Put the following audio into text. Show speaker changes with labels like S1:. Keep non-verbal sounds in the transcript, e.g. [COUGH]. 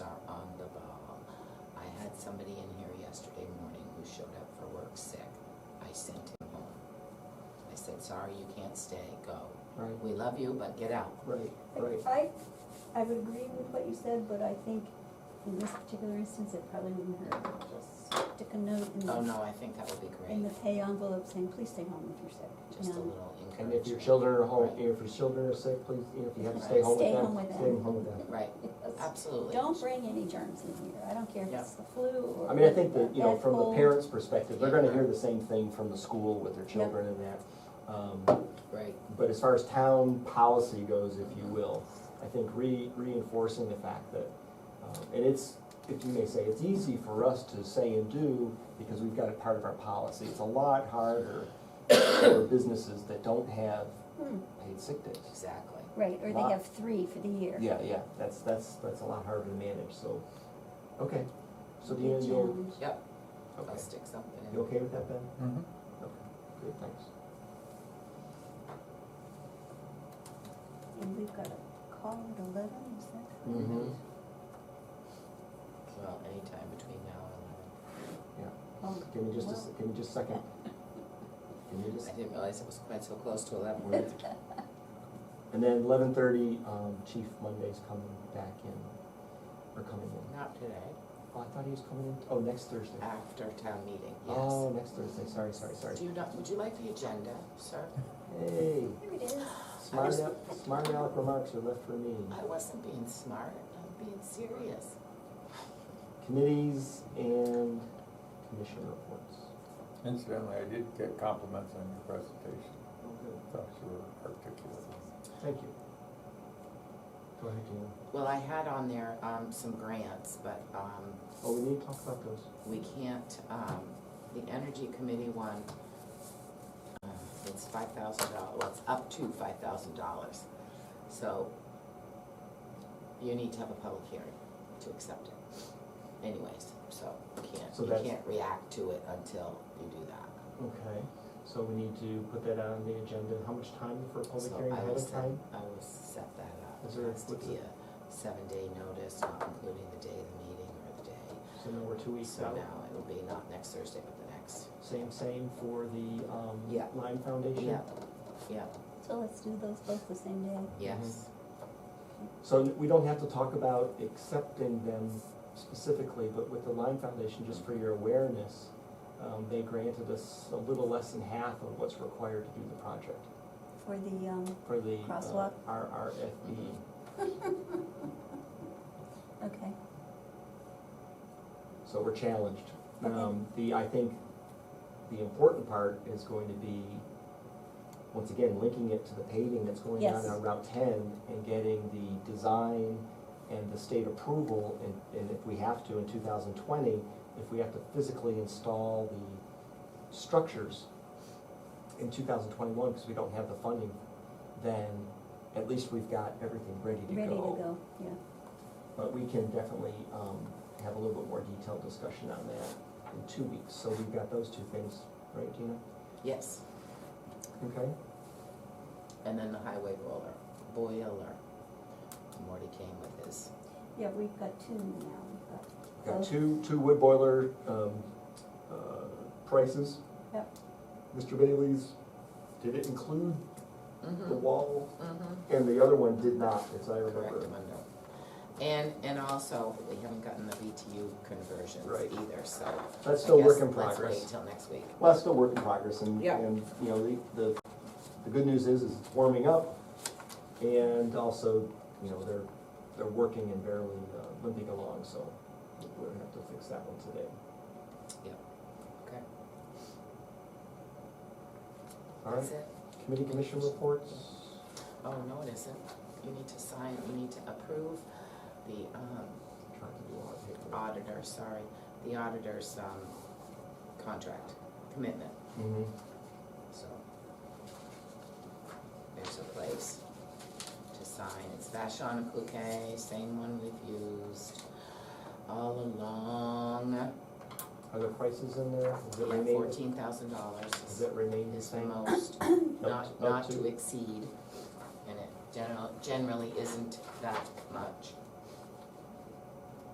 S1: somebody in here yesterday morning who showed up for work sick. I sent him home. I said, sorry, you can't stay, go.
S2: Right,
S1: We love you, but get out.
S2: right, right.
S3: I, I would agree with what you said, but I think in this particular instance, it probably wouldn't hurt to just stick a note in
S1: Oh,
S3: the,
S1: no, I think that would be
S3: in the
S1: great,
S3: pay envelope saying, please stay home if you're sick.
S1: just a
S3: you know.
S1: little
S2: And
S1: encouragement.
S2: if your children are home, if your children are sick, please, you know, if you have to stay home
S3: Stay
S2: with
S3: home
S2: them,
S3: with them.
S2: stay home with them.
S1: Right,
S3: Because
S1: absolutely.
S3: Don't bring any germs in here, I don't care if
S1: Yeah.
S3: it's the flu or.
S2: I mean, I think that, you know,
S3: bad
S2: from the
S3: cold.
S2: parents' perspective, they're gonna hear the same thing from the school with their children and that. Um,
S1: Right,
S2: But as far as town policy goes, if you will, I think re- reinforcing the fact that, um, and it's, if you may say, it's easy for us to say and do because we've got it part of our policy. It's a lot harder for businesses that don't have
S3: Hmm,
S2: paid sick days.
S1: exactly.
S3: Right, or
S2: Lot.
S3: they have three for the year.
S2: Yeah, yeah, that's, that's, that's a lot harder to manage, so, okay, so
S3: Be a
S2: Deanna, you'll,
S3: challenge.
S1: Yep,
S2: okay,
S1: I'll stick something in.
S2: you okay with that, Ben?
S4: Mhm.
S2: Okay, good, thanks.
S3: And we've got a call at eleven, is that?
S2: Mm-hmm.
S1: Well, anytime between now and
S3: Oh,
S2: Give me just a, s-
S3: well,
S2: give me just a second. Give me just,
S1: eleven. I didn't realize it was quite so close to eleven.
S2: [LAUGHS] and then eleven thirty, um, Chief Monday's coming back in, or coming in.
S1: Not today,
S2: Oh, I thought he was coming in, oh, next Thursday.
S1: after town meeting, Ah, yes.
S2: Oh, next Thursday, sorry, sorry, sorry.
S1: Do you not, would you like the agenda, sir?
S2: Hey,
S3: Here it is.
S2: smart,
S1: was-
S2: al- smart aleck remarks are left for me.
S1: I wasn't being smart, I'm being serious.
S2: Committees and commission reports.
S4: Incidentally, I did get compliments on your presentation.
S2: Oh, good.
S4: I thought you were articulate.
S2: Thank you. Go ahead, Jim.
S1: Well, I had on there, um, some grants, but, um,
S2: Oh, we need to talk about those.
S1: we can't, um, the energy committee one, uh, it's five thousand dollars, well, it's up to five thousand dollars. So you need to have a public hearing to accept it anyways, so you can't,
S2: So
S1: you
S2: that's-
S1: can't react to it until you do that.
S2: Okay, so we need to put that on the agenda. How much time for a public
S1: So
S2: hearing?
S1: I
S2: Ahead
S1: will
S2: of
S1: set-
S2: time?
S1: I will set that up.
S2: Is there-
S1: It has to
S2: what's
S1: be
S2: it?
S1: a seven-day notice, not including the day of the meeting or the day.
S2: So now we're two weeks
S1: So
S2: out.
S1: now it'll be not next Thursday, but the next.
S2: Same, same for the, um,
S1: Yeah.
S2: Lime Foundation?
S1: Yeah, yeah,
S3: So let's do those both the same day.
S1: yes.
S2: Mm-hmm. So we don't have to talk about accepting them specifically, but with the Lime Foundation, just for your awareness, um, they granted us a little less than half of what's required to do the project
S3: For the, um,
S2: for the, uh,
S3: Crosswalk?
S2: RRFB.
S3: okay,
S2: So we're challenged.
S3: Okay.
S2: Um, the, I think, the important part is going to be, once again, linking it to the paving that's going on
S3: Yes.
S2: on Route ten and getting the design and the state approval, and, and if we have to in two thousand twenty, if we have to physically install the structures in two thousand twenty-one, because we don't have the funding, then at least we've got everything ready
S3: ready to go, yeah.
S2: but we can definitely um, have a little bit more detailed discussion on that in two weeks. So we've got those two things, right, Gina?
S1: Yes,
S2: Okay.
S1: and then the highway roller, boiler. Morty came with his,
S3: Yeah, we've got two now, we've got,
S2: Got
S3: Okay.
S2: two, two wood boiler um, uh, prices.
S3: Yep.
S2: Mr. Bailey's, did it include the
S1: mm-hmm,
S2: wall?
S1: mm-hmm,
S2: And the other one did not, as I
S1: correct,
S2: remember.
S1: Mundo. And, and also, we haven't gotten the BTU conversions
S2: Right.
S1: either, so. I
S2: That's still work
S1: guess
S2: in
S1: Let's wait
S2: progress.
S1: till next week.
S2: Well, that's still work in progress and,
S1: Yeah.
S2: and, you know, the, the, the good news is, is it's warming up. And also, you know, they're, they're working and barely uh, limping along, so we're gonna have to fix that one today.
S1: Okay,
S2: All
S1: that's
S2: right,
S1: it?
S2: committee commission reports?
S1: Oh, no, it isn't. You need to sign, you need to approve the, um,
S2: I'm Trying to do all that paperwork.
S1: auditor, sorry, the auditor's, um, contract, commitment,
S2: Mhm.
S1: so. There's a place to sign. It's Vashon and Cloquet, same one we've used all along.
S2: Are there prices in there? Does it
S1: Yeah,
S2: remain,
S1: fourteen thousand dollars
S2: does it remain the
S1: is the
S2: same? [COUGHS]
S1: most,
S2: Up-
S1: not,
S2: up
S1: not to exceed. And it general, generally isn't that much.